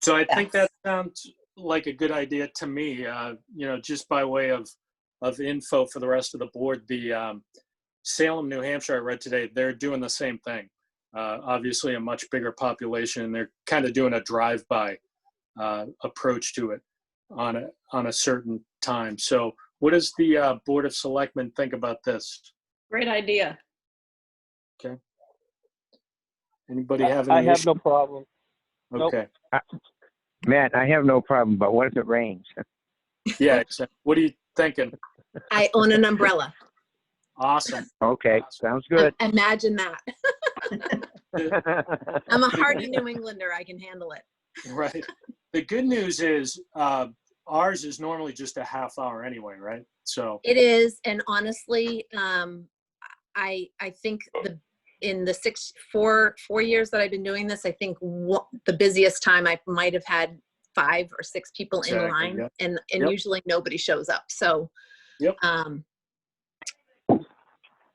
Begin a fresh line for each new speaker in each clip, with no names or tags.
So I think that sounds like a good idea to me, uh, you know, just by way of, of info for the rest of the board, the um, Salem, New Hampshire, I read today, they're doing the same thing. Uh, Obviously, a much bigger population, and they're kind of doing a drive-by uh, approach to it on a, on a certain time. So what does the uh, Board of Selectmen think about this?
Great idea.
Anybody have
I
any
have
issue?
no problem. no-
Okay,
Matt, I have no problem, but what if it rains?
yeah, exactly. what are you thinking?
I own an umbrella.
Awesome.
Okay, sounds good.
Imagine that.
That's
I'm a hardy New Englander. I can handle it.
Right. The good news is uh, ours is normally just a half hour anyway, right? So,
It is, and honestly, um, I I think the in the six four four years that I've been doing this, I think wha- the busiest time I might have had five or six people
Exactly,
in line,
yep.
and and
Yep.
usually nobody shows up. So,
Yep.
Um,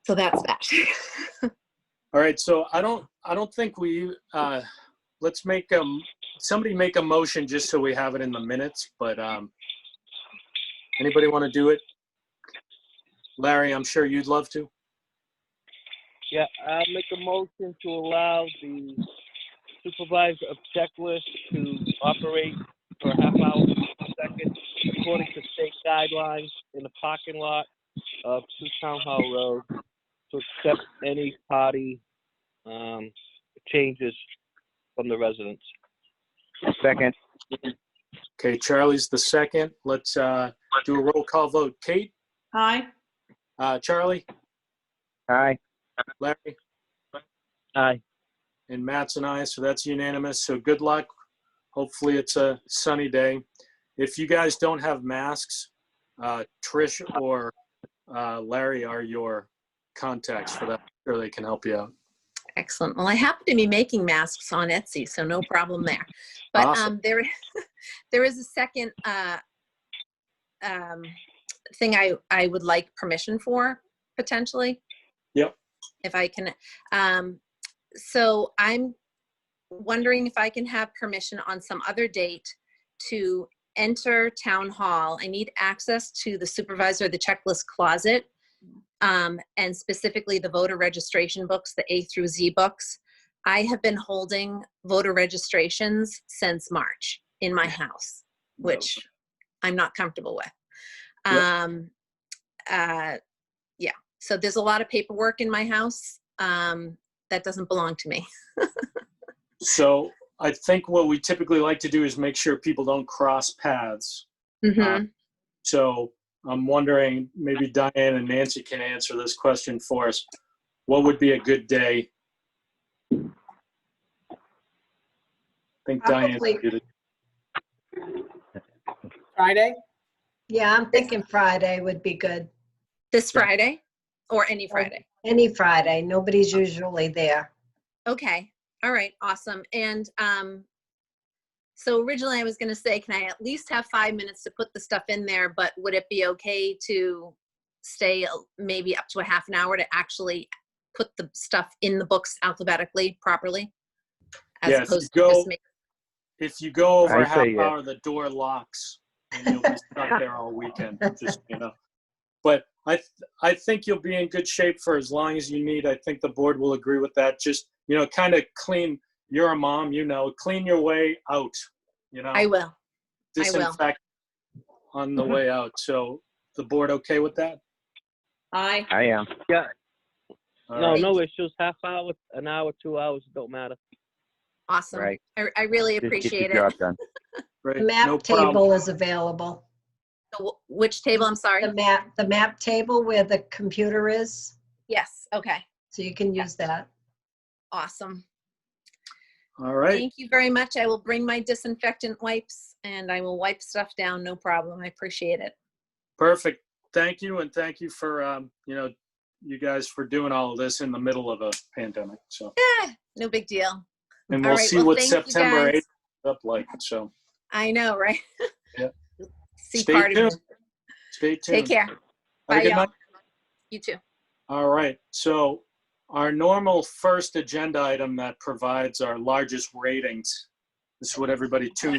so that's that.
all right. So I don't, I don't think we, uh, let's make um, somebody make a motion just so we have it in the minutes. But um, anybody want to do it? Larry, I'm sure you'd love to.
Yeah, I'll make a motion to allow the supervisor of checklist to operate for a half hour per second according to state guidelines in the parking lot of Two Town Hall Road to accept any party um, changes from the residents.
Second,
Okay, Charlie's the second. Let's uh, do a roll call vote. Kate,
Aye.
uh, Charlie,
aye.
Larry,
Aye.
and Matt's and I, so that's unanimous. So good luck. Hopefully it's a sunny day. If you guys don't have masks, uh, Trish or uh, Larry are your contacts for that. Sure, they can help you out.
Excellent. Well, I happen to be making masks on Etsy, so no problem there. But
Awesome.
um, there, there is a second uh, um, thing I I would like permission for potentially.
Yep.
If I can, um, so I'm wondering if I can have permission on some other date to enter town hall. I need access to the supervisor of the checklist closet um, and specifically the voter registration books, the A through Z books. I have been holding voter registrations since March in my house, which I'm not comfortable with.
Yep.
Um, uh, yeah, so there's a lot of paperwork in my house um, that doesn't belong to me.
So I think what we typically like to do is make sure people don't cross paths.
Mhm.
So I'm wondering, maybe Diane and Nancy can answer this question for us. What would be a good day? I think Diane.
Probably-
did it.
Friday? Yeah, I'm thinking Friday would be good.
this Friday or any Friday.
Any Friday, nobody's usually there.
Okay. All right. Awesome. And um, so originally I was going to say, can I at least have five minutes to put the stuff in there? But would it be okay to stay a- maybe up to a half an hour to actually put the stuff in the books alphabetically properly? As
Yeah, if you
opposed to
go-
just make,
If you go over
I
half
say yes.
hour, the door locks and you'll be stuck there all weekend, just, you know. But I, th- I think you'll be in good shape for as long as you need. I think the board will agree with that. Just, you know, kind of clean, you're a mom, you know, clean your way out, you know.
I will. I will.
disinfect on the way out. So the board okay with that?
Aye.
I am.
All
No,
right.
no issues. Half hour, an hour, two hours, don't matter.
Awesome.
Right.
I, I really
Just get
appreciate
your
it.
job done.
Great.
The
No
map
problem.
table is available.
So wh- Which table? I'm sorry.
Um,
The map, the map table where the computer is,
Yes. Okay.
so you can use that.
Awesome.
All right.
Thank you very much. I will bring my disinfectant wipes and I will wipe stuff down. No problem. I appreciate it.
Perfect. Thank you. And thank you for, um, you know, you guys for doing all of this in the middle of a pandemic. So,
Eh, no big deal.
and
All
we'll
right,
see
well,
what
thank you,
September
guys.
8th is up like. So
I know, right?
Yeah.
See
Stay
part of it.
tuned. stay tuned.
Take care.
Have a
Bye,
good
y'all.
night.
You too.
All right, so our normal first agenda item that provides our largest ratings. This is what everybody tunes